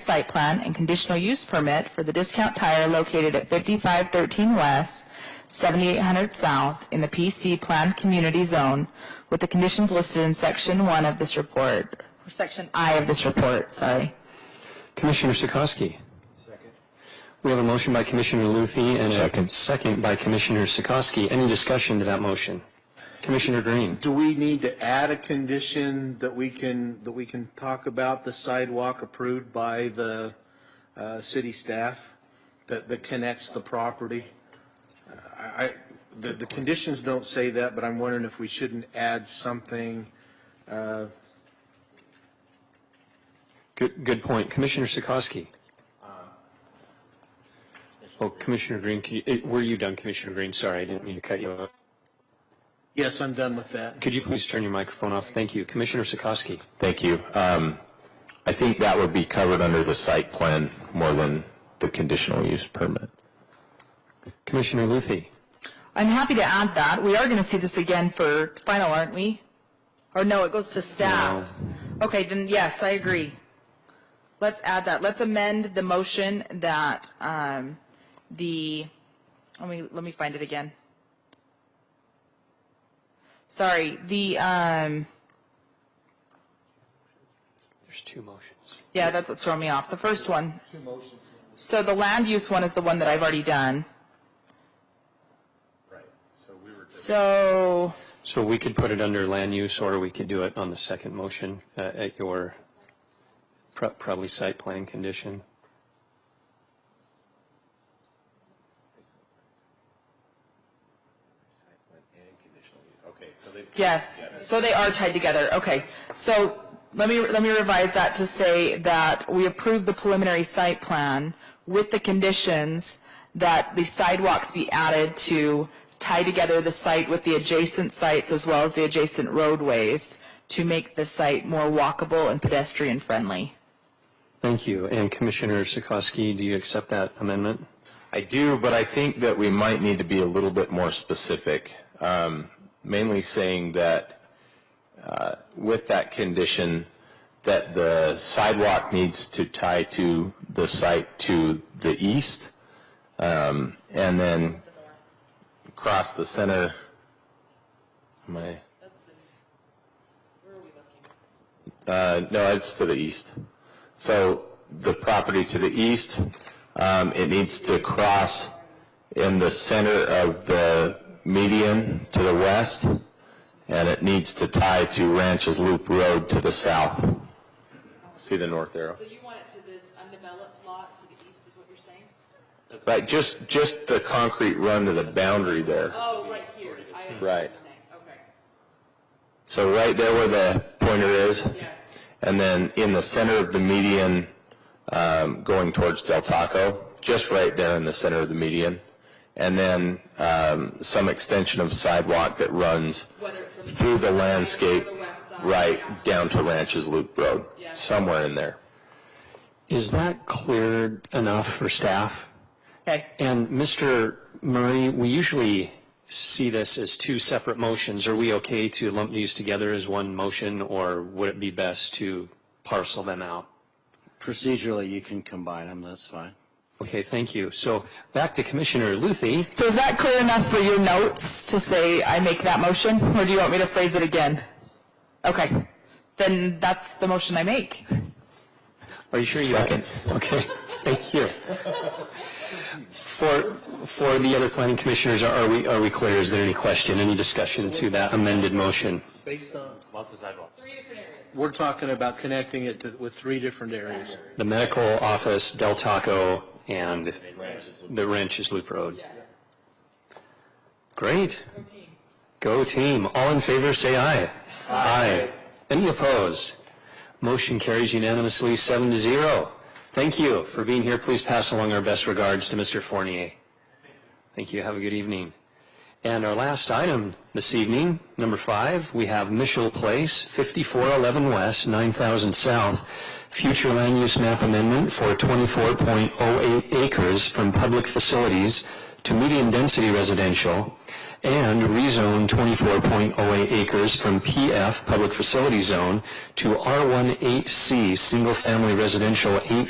site plan and conditional use permit for the Discount Tire located at 5513 West, 7800 South in the PC Planned Community Zone with the conditions listed in Section 1 of this report, or Section I of this report, sorry. Commissioner Sikoski. Second. We have a motion by Commissioner Luthi and a Second. second by Commissioner Sikoski. Any discussion to that motion? Commissioner Green. Do we need to add a condition that we can, that we can talk about the sidewalk approved by the uh, city staff that, that connects the property? I, I- the, the conditions don't say that, but I'm wondering if we shouldn't add something. Good, good point. Commissioner Sikoski. Um, Oh, Commissioner Green, can you- eh, were you done, Commissioner Green? Sorry, I didn't mean to cut you off. Yes, I'm done with that. Could you please turn your microphone off? Thank you. Commissioner Sikoski. Thank you. Um, I think that would be covered under the site plan more than the conditional use permit. Commissioner Luthi. I'm happy to add that. We are going to see this again for final, aren't we? Or no, it goes to staff. Okay, then yes, I agree. Let's add that. Let's amend the motion that um, the, let me, let me find it again. Sorry, the, um, There's two motions. yeah, that's what's throwing me off. The first one. So the land use one is the one that I've already done. Right, so we were. So. So we could put it under land use, or we could do it on the second motion uh, at your pro- probably site plan condition. Yes, so they are tied together, okay. So let me, let me revise that to say that we approve the preliminary site plan with the conditions that the sidewalks be added to tie together the site with the adjacent sites as well as the adjacent roadways to make the site more walkable and pedestrian friendly. Thank you. And Commissioner Sikoski, do you accept that amendment? I do, but I think that we might need to be a little bit more specific, um, mainly saying that uh, with that condition, that the sidewalk needs to tie to the site to the east, um, and then cross the center. My. Uh, no, it's to the east. So the property to the east, um, it needs to cross in the center of the median to the west, and it needs to tie to Ranches Loop Road to the south. See the north arrow? So you want it to this undeveloped lot to the east is what you're saying? Right, just, just the concrete run to the boundary there. Oh, right here. I understand what Right. you're saying. Okay. So right there where the pointer is, Yes. and then in the center of the median, um, going towards Del Taco, just right there in the center of the median, and then um, some extension of sidewalk that runs Whether it's from the through the landscape, Or the west side, right yeah. down to Ranches Loop Road, Yeah. somewhere in there. Is that clear enough for staff? Okay, And Mr. Murray, we usually see this as two separate motions. Are we okay to lump these together as one motion, or would it be best to parcel them out? Procedurally, you can combine them, that's fine. Okay, thank you. So back to Commissioner Luthi. so is that clear enough for your notes to say I make that motion? Or do you want me to phrase it again? Okay, then that's the motion I make. Are you sure you? Second. Okay, thank you. For, for the other planning commissioners, are we, are we clear? Is there any question, any discussion to that amended motion? Based on, Three different areas. we're talking about connecting it to, with three different areas. The medical office, Del Taco, and the Ranches Loop Road. Yes. Great. Go team. All in favor, say aye. Aye. Any opposed? Motion carries unanimously, seven to zero. Thank you for being here. Please pass along our best regards to Mr. Fournier. Thank you. Have a good evening. And our last item this evening, number five, we have Mitchell Place, 5411 West, 9,000 South, future land use map amendment for 24.08 acres from public facilities to medium-density residential, and rezone 24.08 acres from PF, public facility zone, to R18C, single-family residential, 8